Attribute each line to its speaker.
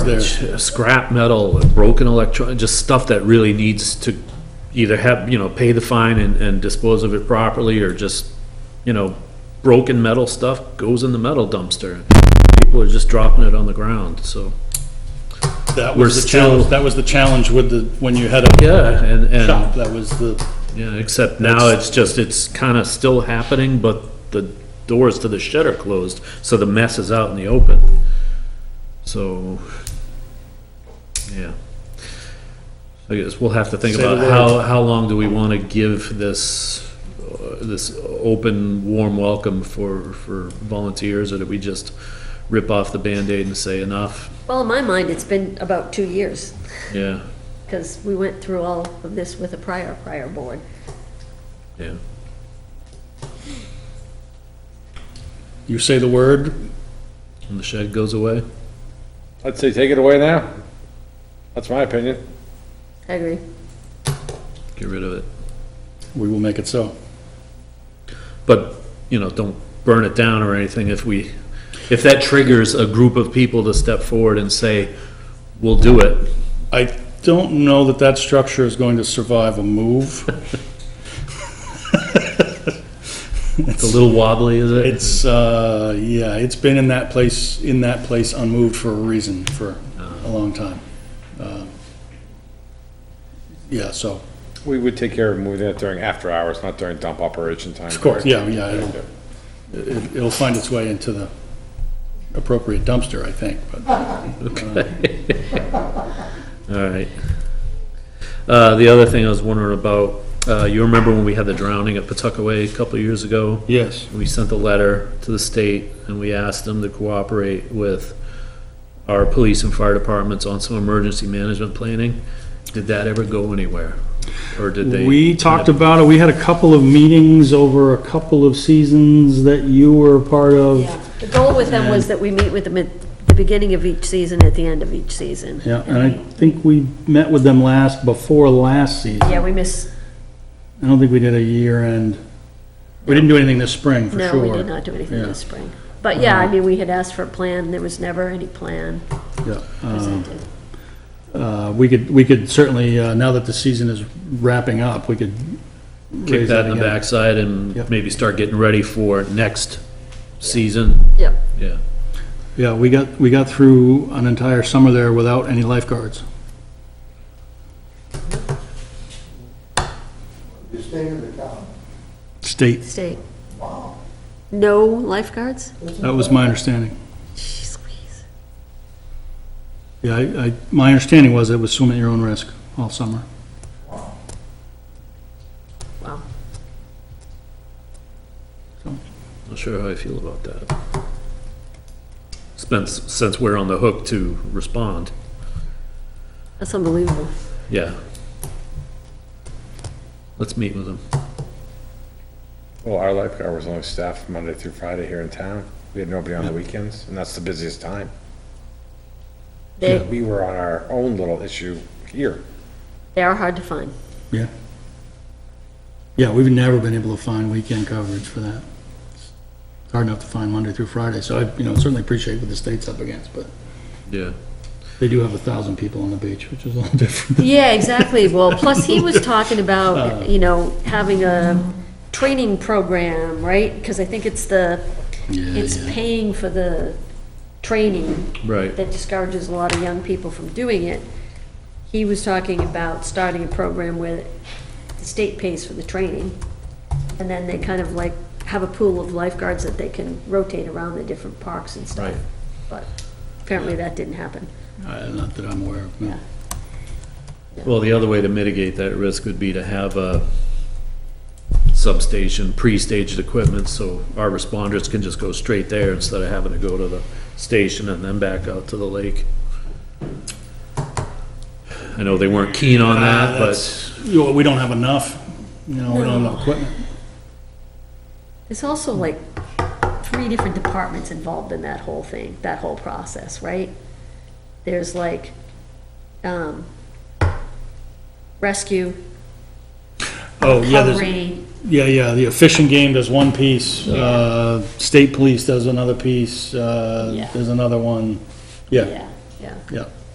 Speaker 1: There's scrap metal, broken electron, just stuff that really needs to either have, you know, pay the fine and, and dispose of it properly, or just, you know, broken metal stuff goes in the metal dumpster. People are just dropping it on the ground, so,
Speaker 2: That
Speaker 1: We're
Speaker 2: was the
Speaker 1: still-
Speaker 2: challenge, that was the challenge with the, when you had a
Speaker 1: yeah, and,
Speaker 2: shop,
Speaker 1: and,
Speaker 2: that was the,
Speaker 1: yeah, except now it's just, it's kinda still happening, but the doors to the shed are closed, so the mess is out in the open. So, yeah. I guess we'll have to think
Speaker 2: Say the
Speaker 1: about how, how long do we want to give this, uh, this open, warm welcome for, for volunteers? Or do we just rip off the Band-Aid and say enough?
Speaker 3: Well, in my mind, it's been about two years,
Speaker 1: Yeah,
Speaker 3: because we went through all of this with a prior, prior board.
Speaker 1: yeah.
Speaker 2: you say the word,
Speaker 1: And the shed goes away?
Speaker 4: I'd say take it away now. That's my opinion.
Speaker 3: I agree.
Speaker 1: Get rid of it.
Speaker 2: we will make it so.
Speaker 1: But, you know, don't burn it down or anything if we, if that triggers a group of people to step forward and say, we'll do it.
Speaker 2: I don't know that that structure is going to survive a move.
Speaker 1: It's a little wobbly, is it?
Speaker 2: It's, uh, yeah, it's been in that place, in that place unmoved for a reason for a long time. Uh, Yeah, so,
Speaker 4: We would take care of moving that during after hours, not during dump operation time.
Speaker 2: of course, yeah, yeah, it'll, it- it'll find its way into the appropriate dumpster, I think, but
Speaker 1: All right. Uh, the other thing I was wondering about, uh, you remember when we had the drowning at Pawtuckaway a couple of years ago?
Speaker 2: yes.
Speaker 1: We sent a letter to the state and we asked them to cooperate with our police and fire departments on some emergency management planning. Did that ever go anywhere? Or did they?
Speaker 5: We talked about it, we had a couple of meetings over a couple of seasons that you were a part of.
Speaker 3: The goal with them was that we meet with them at the beginning of each season, at the end of each season.
Speaker 5: Yeah, and I think we met with them last, before last season.
Speaker 3: Yeah, we miss,
Speaker 5: I don't think we did a year end.
Speaker 2: We didn't do anything this spring, for
Speaker 3: no,
Speaker 2: sure.
Speaker 3: we did not do anything
Speaker 2: Yeah.
Speaker 3: this spring. But yeah, I mean, we had asked for a plan, there was never any plan
Speaker 2: Yeah.
Speaker 3: presented.
Speaker 2: Uh, We could, we could certainly, uh, now that the season is wrapping up, we could.
Speaker 1: kick
Speaker 2: raise
Speaker 1: that in the
Speaker 2: again.
Speaker 1: backside and
Speaker 2: Yep.
Speaker 1: maybe start getting ready for next season?
Speaker 3: Yep,
Speaker 1: Yeah.
Speaker 2: Yeah, we got, we got through an entire summer there without any lifeguards.
Speaker 6: The state of the town.
Speaker 2: State,
Speaker 3: state. No lifeguards?
Speaker 2: that was my understanding.
Speaker 3: Jeez Louise.
Speaker 2: Yeah, I, I- my understanding was it was swim at your own risk all summer.
Speaker 3: Wow.
Speaker 1: Not sure how I feel about that. Since, since we're on the hook to respond,
Speaker 3: That's unbelievable.
Speaker 1: yeah. Let's meet with them.
Speaker 4: Well, our lifeguard was only staffed Monday through Friday here in town. We had nobody on the weekends, and that's the busiest time.
Speaker 3: They,
Speaker 4: We were on our own little issue here.
Speaker 3: they are hard to find.
Speaker 2: Yeah. Yeah, we've never been able to find weekend coverage for that. It's Hard enough to find Monday through Friday, so I, you know, certainly appreciate what the state's up against, but
Speaker 1: Yeah.
Speaker 2: they do have a thousand people on the beach, which is a little different.
Speaker 3: Yeah, exactly. Well, plus he was talking about, you know, having a training program, right? Because I think it's the, it's paying for the training
Speaker 1: Right.
Speaker 3: that discourages a lot of young people from doing it. He was talking about starting a program where the state pays for the training. And then they kind of like have a pool of lifeguards that they can rotate around the different parks and stuff.
Speaker 1: Right.
Speaker 3: But apparently that didn't happen.
Speaker 2: Uh, Not that I'm aware of, no.
Speaker 1: Well, the other way to mitigate that risk would be to have a substation, pre-staged equipment, so our responders can just go straight there instead of having to go to the station and then back out to the lake. I know they weren't keen on that, but,
Speaker 2: You know, We don't have enough, you know, we don't have enough equipment.
Speaker 3: There's also like three different departments involved in that whole thing, that whole process, right? There's like, um, rescue,
Speaker 2: Oh, yeah, there's.
Speaker 3: covering,
Speaker 2: Yeah, yeah, the fishing game does one piece, uh, state police does another piece, uh,
Speaker 3: Yeah.
Speaker 2: there's another one, yeah.
Speaker 3: yeah. yeah.
Speaker 2: yeah.